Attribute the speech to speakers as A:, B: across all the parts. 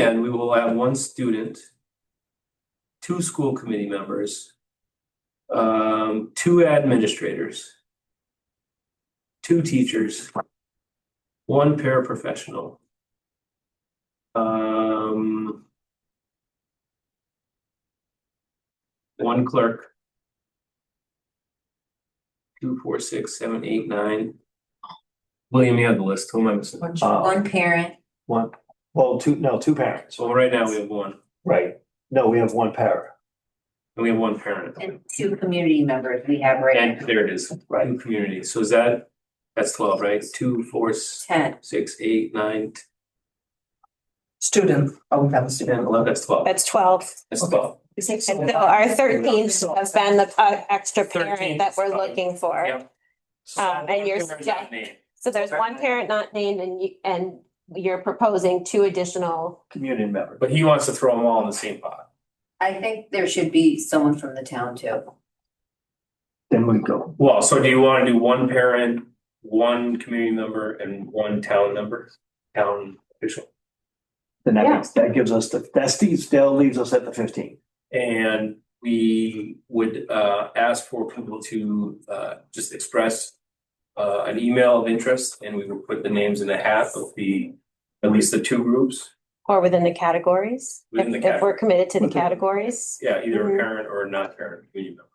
A: and we will have one student. Two school committee members. Um, two administrators. Two teachers. One paraprofessional. Um. One clerk. Two, four, six, seven, eight, nine. William, you have the list, who am I missing?
B: One,
C: Uh,
B: one parent,
C: One, well, two, no, two parents,
A: So right now we have one,
C: right? No, we have one parent,
A: and we have one parent.
B: and two community members we have right
A: And
B: now,
A: there it is,
C: right?
A: two communities, so is that, that's twelve, right? Two, four, s-
B: ten.
A: six, eight, nine,
D: Student, oh, we have a
A: ten,
D: student.
A: eleven, that's twelve,
E: That's twelve.
A: that's twelve.
E: So Our thirteenth has been the uh, extra parent that we're looking for.
A: Yep.
E: Um, and you're
A: Parent not named.
E: So there's one parent not named and you, and you're proposing two additional.
C: Community member.
A: But he wants to throw them all in the same pot.
B: I think there should be someone from the town too.
C: Then we go,
A: Well, so do you wanna do one parent, one community member, and one town member, town official?
C: then that
E: Yeah.
C: makes, that gives us the, that Steve still leaves us at the fifteen.
A: And we would uh ask for people to uh just express. Uh an email of interest and we would put the names in the hat of the, at least the two groups.
E: Or within the categories, if,
A: Within the
E: if we're committed to the
C: Within-
E: categories.
A: Yeah, either a
E: Mhm.
A: parent or a not parent community member.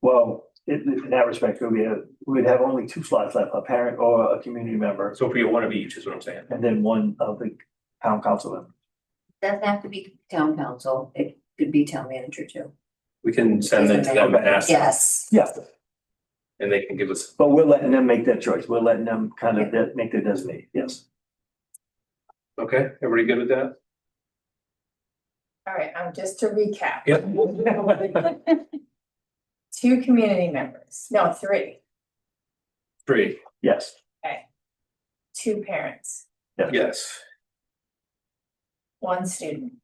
C: Well, in, in that respect, we'd have, we'd have only two slots left, a parent or a community member,
A: So if we get one of each is what I'm saying.
C: and then one of the town council member.
B: Doesn't have to be town council, it could be town manager too.
A: We can send them to them and ask them
B: Yes,
C: Yeah,
A: and they can give us.
C: but we're letting them make that choice. We're letting them kind of de- make their designate, yes.
A: Okay, everybody good with that?
F: All right, um, just to recap.
A: Yep.
F: Two community members, no, three,
A: Three,
C: Yes,
F: two parents,
A: yes,
F: one student,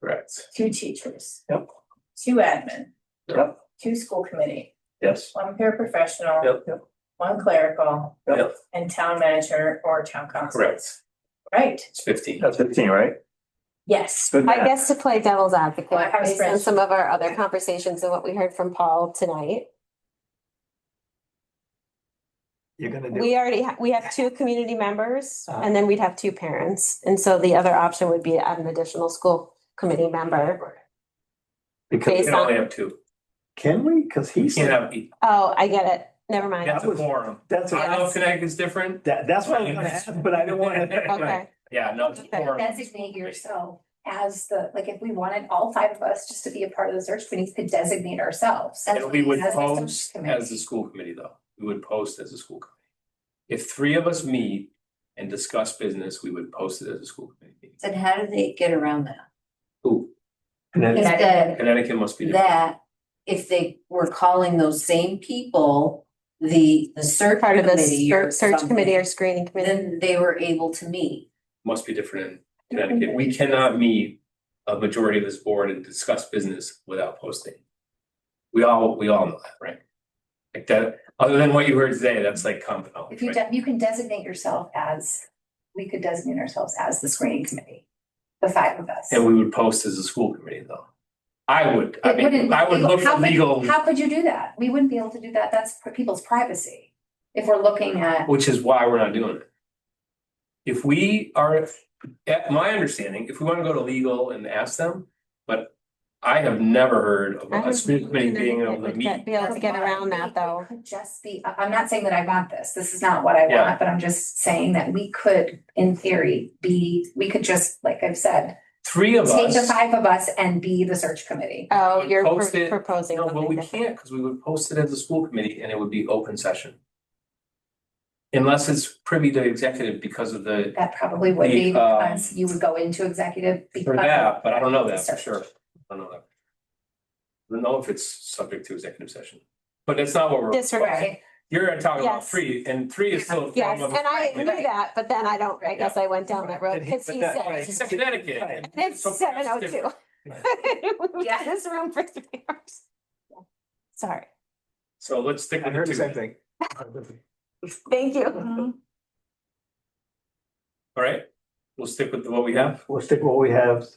A: correct.
F: two teachers.
C: Yep.
F: Two admin.
C: Yep.
F: Two school committee,
C: yes.
F: one paraprofessional.
A: Yep.
F: One clerical.
A: Yep.
F: And town manager or town council.
A: Correct.
F: Right,
A: It's fifteen.
C: That's fifteen, right?
F: yes,
C: Good
E: I
C: math.
E: guess to play devil's
F: Well,
E: advocate,
F: I was
E: based on
F: friends.
E: some of our other conversations and what we heard from Paul tonight.
C: You're gonna do,
E: We already, ha- we have two community members
A: Ah.
C: Uh-huh.
E: and then we'd have two parents. And so the other option would be to add an additional school committee member.
A: We
C: because,
A: can only have two.
C: can we? Cause
A: You
C: he's,
A: can't have, you
E: Oh, I get it. Never mind.
A: have to quorum.
C: that's,
A: I
C: what-
A: know Connecticut's different.
C: that, that's what I was gonna ask, but I don't wanna.
E: Okay.
A: Yeah, no. it's
E: Okay,
A: quorum.
G: designate yourself as the, like, if we wanted all five of us just to be a part of the search committee, could designate ourselves.
A: And we would
G: as the search
A: post
G: committee.
A: as the school committee though. We would post as a school committee. If three of us meet and discuss business, we would post it as a school committee. meeting.
B: then how do they get around that?
A: Ooh,
C: And then-
B: Instead
A: Connecticut must be different.
B: that, if they were calling those same people, the, the search
E: Part of the
B: committee or
E: ser- search committee or
B: something,
E: screening committee.
B: Then they were able to meet.
A: must be different in Connecticut. We cannot meet a majority of this board and discuss business without posting. We all, we all know that, right? Like that, other than what you heard today, that's like common knowledge,
G: If you,
A: right?
G: de- you can designate yourself as, we could designate ourselves as the screening committee, the five of us.
A: And we would post as a school committee though. I would, I
G: It wouldn't
A: mean,
G: be
A: I would
G: legal.
A: look
G: How
A: for
G: could-
A: legal,
G: How could you do that? We wouldn't be able to do that. That's for people's privacy. If we're looking at,
A: which is why we're not doing it. If we are, at my understanding, if we wanna go to legal and ask them, but I have never heard of
E: I
A: a school committee being able to
E: would
A: meet.
E: get- Be able to get around that though.
G: It could Just be, I- I'm not saying that I want this, this is not what I
A: Yeah.
G: want, but I'm just saying that we could, in theory, be, we could just, like I've said,
A: Three of
G: take
A: us.
G: the five of us and be the search committee.
E: Oh,
A: would
E: you're
A: post
E: pro-
A: it-
E: proposing
A: No, but
E: something
A: we
E: different.
A: can't, because we would post it as a school committee and it would be open session. Unless it's privy to executive because of the,
G: That probably would be,
A: The, um,
G: because you would go into executive.
A: for
G: because
A: that, but I don't know that for
G: Search.
A: sure. I don't know that. I don't know if it's subject to executive session, but that's not what we're,
E: Disregard.
G: Right,
A: you're talking about
E: Yes.
A: three, and three is still. a
E: Yes,
A: form of-
E: and I
A: Right.
E: knew that, but then I don't, I guess I went down that road
C: And he-
E: because
C: but
E: he
C: that-
E: said,
C: right.
A: It's Connecticut. and
E: it's
A: something
E: seven oh
A: else
E: two.
A: different.
G: Yeah.
E: This room for three hours. Sorry,
A: So let's stick
C: I
A: with
C: heard
A: the
C: the same
A: two,
C: thing.
E: thank you.
A: all right? we'll stick with what we have.
C: We'll stick with what we have,